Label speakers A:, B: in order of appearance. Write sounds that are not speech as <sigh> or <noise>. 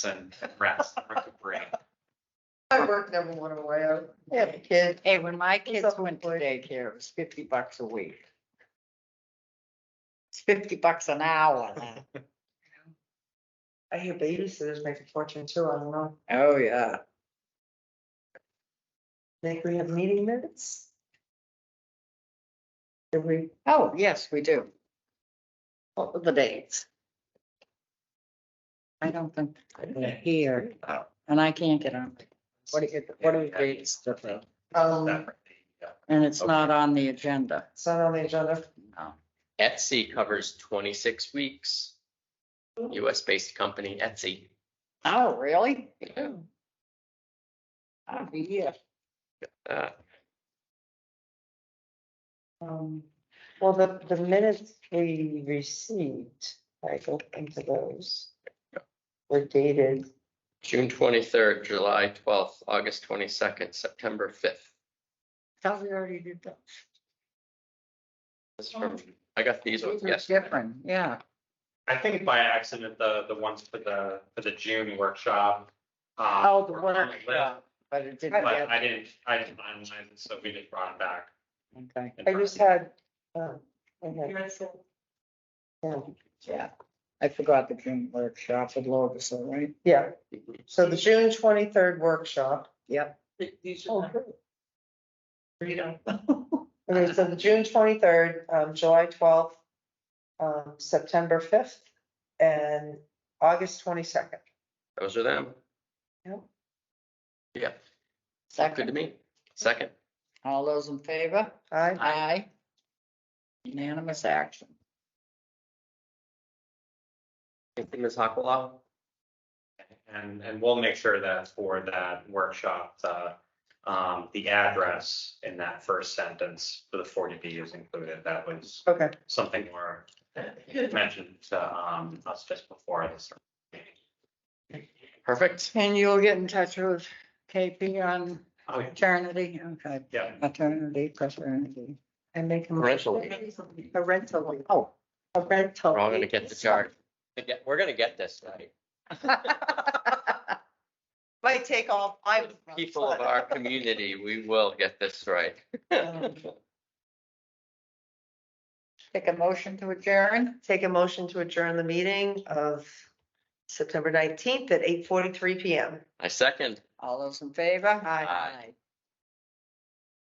A: and rest, recuperate.
B: I work never went away. I-
C: I have a kid.
D: Hey, when my
C: It's
D: kids
C: up
D: went to
C: for-
D: daycare, it was fifty bucks a week. It's fifty bucks an hour now.
B: I hear babysitters make a fortune too. I don't know.
D: Oh, yeah.
B: Think we have meeting minutes? Did we,
D: Oh, yes, we do. What were the dates? I don't think they're here, and I can't get on. What are, you- what are the dates? Tiffany?
B: <laughs> um,
A: uh,
D: And it's not on the agenda.
B: it's not on the agenda.
E: Etsy covers twenty-six weeks. US-based company Etsy.
D: Oh, really? I'll be here.
E: Uh,
B: Um, well, the, the minutes we received, I looked into those. Were dated,
E: June twenty-third, July twelfth, August twenty-second, September fifth.
D: Thought we already did that.
E: This is from, I got these ones
D: Oh, These are
E: yesterday.
D: different, yeah.
A: I think by accident, the, the ones for the, for the June workshop. um,
D: Oh, the
A: were on list,
D: workshop, but it
B: Oh,
D: didn't
A: But
D: get,
A: I didn't, I didn't finalize it, so we just brought it back.
D: okay,
A: in
B: I just
A: person.
B: had, um, I had. um, Yeah,
D: yeah. I forgot the June workshop at Lotus, all right?
B: yeah, so the June twenty-third workshop.
D: Yep.
B: Oh, good. <laughs> Okay, so the June twenty-third, um, July twelfth, um, September fifth, and August twenty-second.
E: Those are them.
B: Yep.
E: Yeah, good to
D: Second,
E: me. Second,
D: all those in favor?
B: I,
D: Aye. Unanimous action.
E: thank you, Ms. Hakala.
A: And, and we'll make sure that for that workshop, the, um, the address in that first sentence for the forty B is included. That was
B: okay,
A: something more mentioned, to, um, us just before this.
E: Perfect.
D: And you'll get in touch with KP on
A: Oh, yeah.
D: maternity, okay,
A: yeah.
D: maternity, paternity.
B: I make a.
E: Rental.
B: A rental,
D: Oh.
B: a rental.
E: We're all gonna get the chart. We're gonna get this right.
B: <laughs> Might take all five. of us.
E: People of our community, we will get this right.
D: Take a motion to adjourn?
B: Take a motion to adjourn the meeting of September nineteenth at eight forty-three PM.
E: I second.
D: All those in favor?
B: Aye.
E: Aye.